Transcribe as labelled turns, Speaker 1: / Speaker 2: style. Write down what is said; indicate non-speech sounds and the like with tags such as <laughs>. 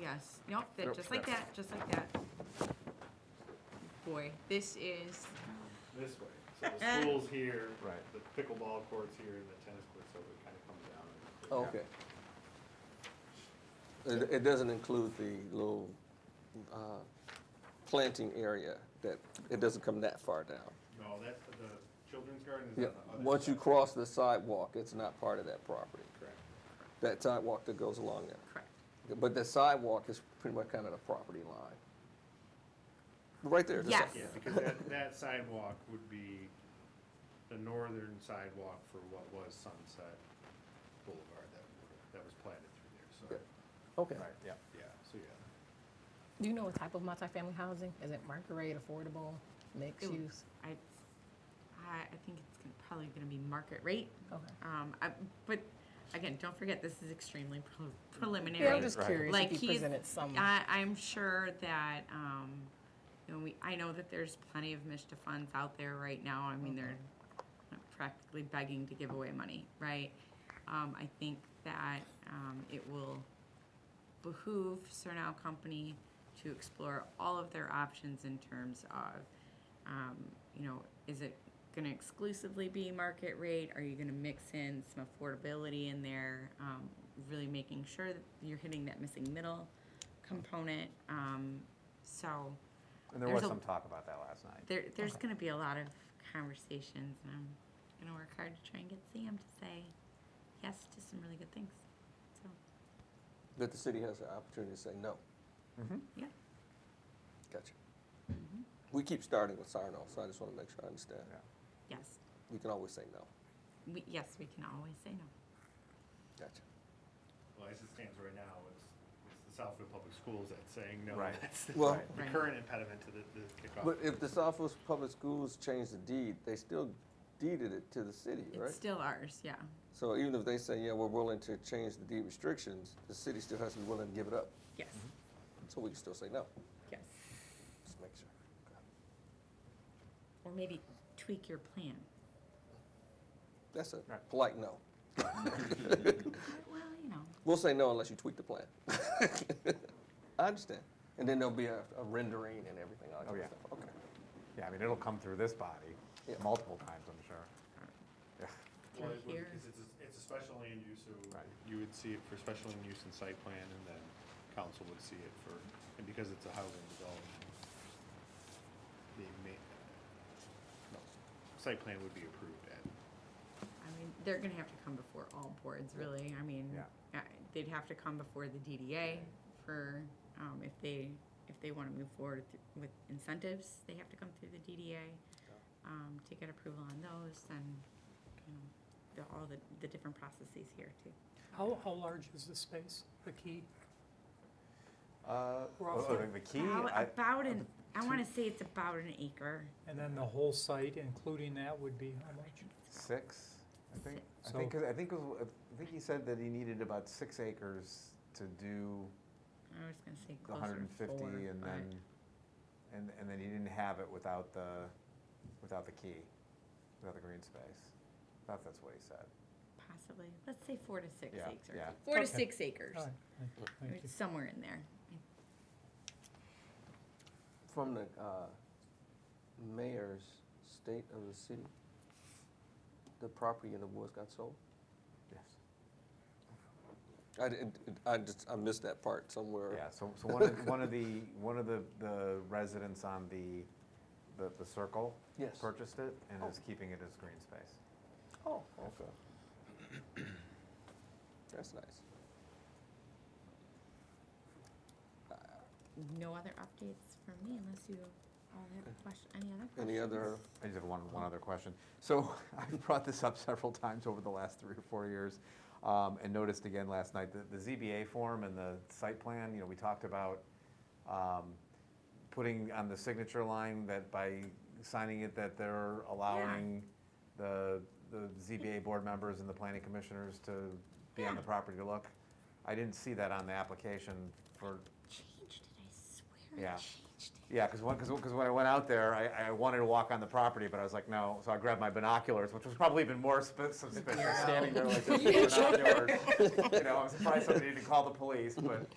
Speaker 1: yes, nope, that,
Speaker 2: Nope,
Speaker 1: just like
Speaker 2: yeah.
Speaker 1: that, just like that. Boy, this is,
Speaker 3: this way. So the school's here,
Speaker 2: Right.
Speaker 3: the pickleball court's here, and the tennis court, so it kind of comes down. and-
Speaker 4: Oh, Okay. It, it doesn't include the little, uh, planting area that, it doesn't come that far down.
Speaker 3: No, that's, the children's garden is on
Speaker 4: Yeah,
Speaker 3: the other.
Speaker 4: once you
Speaker 3: side.
Speaker 4: cross the sidewalk, it's not part of that property,
Speaker 3: Correct.
Speaker 4: that sidewalk that goes along there.
Speaker 1: correct,
Speaker 4: But the sidewalk is pretty much kind of the property line. Right there. the si-
Speaker 1: Yes.
Speaker 3: Yeah, because that, that sidewalk would be the northern sidewalk for what was Sunset Boulevard that, that was planted through there,
Speaker 4: Okay,
Speaker 2: Right, yeah.
Speaker 3: so, yeah, so yeah.
Speaker 5: Do you know what type of multifamily housing? Is it market rate, affordable, mixed
Speaker 1: Ooh.
Speaker 5: use?
Speaker 1: I, I, I think it's gonna, probably gonna be market rate.
Speaker 5: Okay.
Speaker 1: Um, I, but again, don't forget, this is extremely pre-
Speaker 5: Yeah,
Speaker 1: preliminary.
Speaker 5: I'm just
Speaker 2: Right.
Speaker 5: curious
Speaker 1: Like
Speaker 5: if you
Speaker 1: he's-
Speaker 5: presented some.
Speaker 1: I, I'm sure that, um, you know, we, I know that there's plenty of Mishta funds out there right now. I mean, they're practically begging to give away money, right? Um, I think that, um, it will behoove Surnow Company to explore all of their options in terms of, um, you know, is it gonna exclusively be market rate? Are you gonna mix in some affordability in there? Um, really making sure that you're hitting that missing middle component. Um, so
Speaker 2: And there
Speaker 1: There's
Speaker 2: was
Speaker 1: a-
Speaker 2: some talk about that last night.
Speaker 1: there, there's gonna be a lot of conversations and I'm gonna work hard to try and get Sam to say yes to some really good things. So,
Speaker 4: that the city has the opportunity to say no.
Speaker 1: yeah.
Speaker 4: Gotcha.
Speaker 1: Mm-hmm.
Speaker 4: We keep starting with Sarno, so I just want to make sure I understand.
Speaker 2: Yeah.
Speaker 1: Yes.
Speaker 4: We can always say no.
Speaker 1: We, yes, we can always say no.
Speaker 4: Gotcha.
Speaker 3: Well, as it stands right now, it's, it's the Southwood Public Schools that's saying no.
Speaker 2: Right.
Speaker 3: That's the,
Speaker 4: Well-
Speaker 3: the
Speaker 1: Right.
Speaker 3: current impediment to the, the kickoff.
Speaker 4: But if the Southwest Public Schools changed the deed, they still deeded it to the city, right?
Speaker 1: It's still ours, yeah.
Speaker 4: So even if they say, yeah, we're willing to change the deed restrictions, the city still has to be willing to give it up.
Speaker 1: Yes,
Speaker 4: So we can still say no.
Speaker 1: yes.
Speaker 4: Just make sure. Okay.
Speaker 1: Or maybe tweak your plan.
Speaker 4: That's a
Speaker 2: Right.
Speaker 4: polite no.
Speaker 1: Well, you know,
Speaker 4: We'll say no unless you tweak the plan. <laughs> I understand. And then there'll be a, a rendering and everything, all that
Speaker 2: Oh,
Speaker 4: kind of
Speaker 2: yeah.
Speaker 4: stuff. Okay.
Speaker 2: Yeah, I mean, it'll come through this body
Speaker 4: Yeah.
Speaker 2: multiple times, I'm sure.
Speaker 1: through
Speaker 3: Well, it would-
Speaker 1: here.
Speaker 3: Because it's, a- it's a special land use, so
Speaker 2: Right.
Speaker 3: you would see it for special land use and site plan, and then council would see it for, and because it's a housing development, they may, no, site plan would be approved at,
Speaker 1: I mean, they're gonna have to come before all boards, really. I mean, uh,
Speaker 2: Yeah.
Speaker 1: they'd have to come before the DDA for, um, if they, if they wanna move forward th- with incentives, they have to come through the DDA, um, to get approval on those and, you know, the, all the, the different processes here too.
Speaker 6: How, how large is the space, the key?
Speaker 2: Uh,
Speaker 6: We're all
Speaker 2: oh,
Speaker 6: set.
Speaker 2: the key,
Speaker 1: About-
Speaker 2: I-
Speaker 1: About an, I wanna say it's about an acre.
Speaker 6: And then the whole site, including that, would be how much?
Speaker 2: six, I think. I
Speaker 6: So-
Speaker 2: think, 'cause I think, it was- I think he said that he needed about six acres to do
Speaker 1: I was gonna say
Speaker 2: the
Speaker 1: closer
Speaker 2: hundred and
Speaker 1: to four.
Speaker 2: fifty and
Speaker 1: but-
Speaker 2: then, and, and then he didn't have it without the, without the key, without the green space. I thought that's what he said.
Speaker 1: Possibly, let's say four to six
Speaker 2: Yeah,
Speaker 1: acres.
Speaker 2: yeah.
Speaker 1: Four to
Speaker 6: Okay.
Speaker 1: six acres,
Speaker 6: All right, thank you,
Speaker 1: I mean,
Speaker 6: thank you.
Speaker 1: it's somewhere in there.
Speaker 4: From the uh, mayor's state of the city, the property in the woods got sold?
Speaker 2: Yes.
Speaker 4: I, didn't- I just, I missed that part somewhere.
Speaker 2: Yeah, so, so one of, one of the, one of the, the residents on the, the, the circle.
Speaker 4: Yes.
Speaker 2: Purchased it and is keeping it as green space.
Speaker 4: Oh, okay. That's nice.
Speaker 1: No other updates from me unless you all have question, any other questions?
Speaker 4: Any other,
Speaker 2: I just have one, one other question. So <laughs> I've brought this up several times over the last three or four years, um, and noticed again last night, that the ZBA form and the site plan, you know, we talked about, um, putting on the signature line that by signing it, that they're allowing the, the ZBA board members and the planning commissioners to be on the
Speaker 1: Yeah.
Speaker 2: property to look. I didn't see that on the application for,
Speaker 1: Changed it, I swear I
Speaker 2: Yeah.
Speaker 1: changed it.
Speaker 2: yeah, because when, because when I went out there, I, I wanted to walk on the property, but I was like, no, so I grabbed my binoculars, which was probably even more sp- suspicious, standing there like this with binoculars. You know, I'm surprised somebody didn't call the police, but.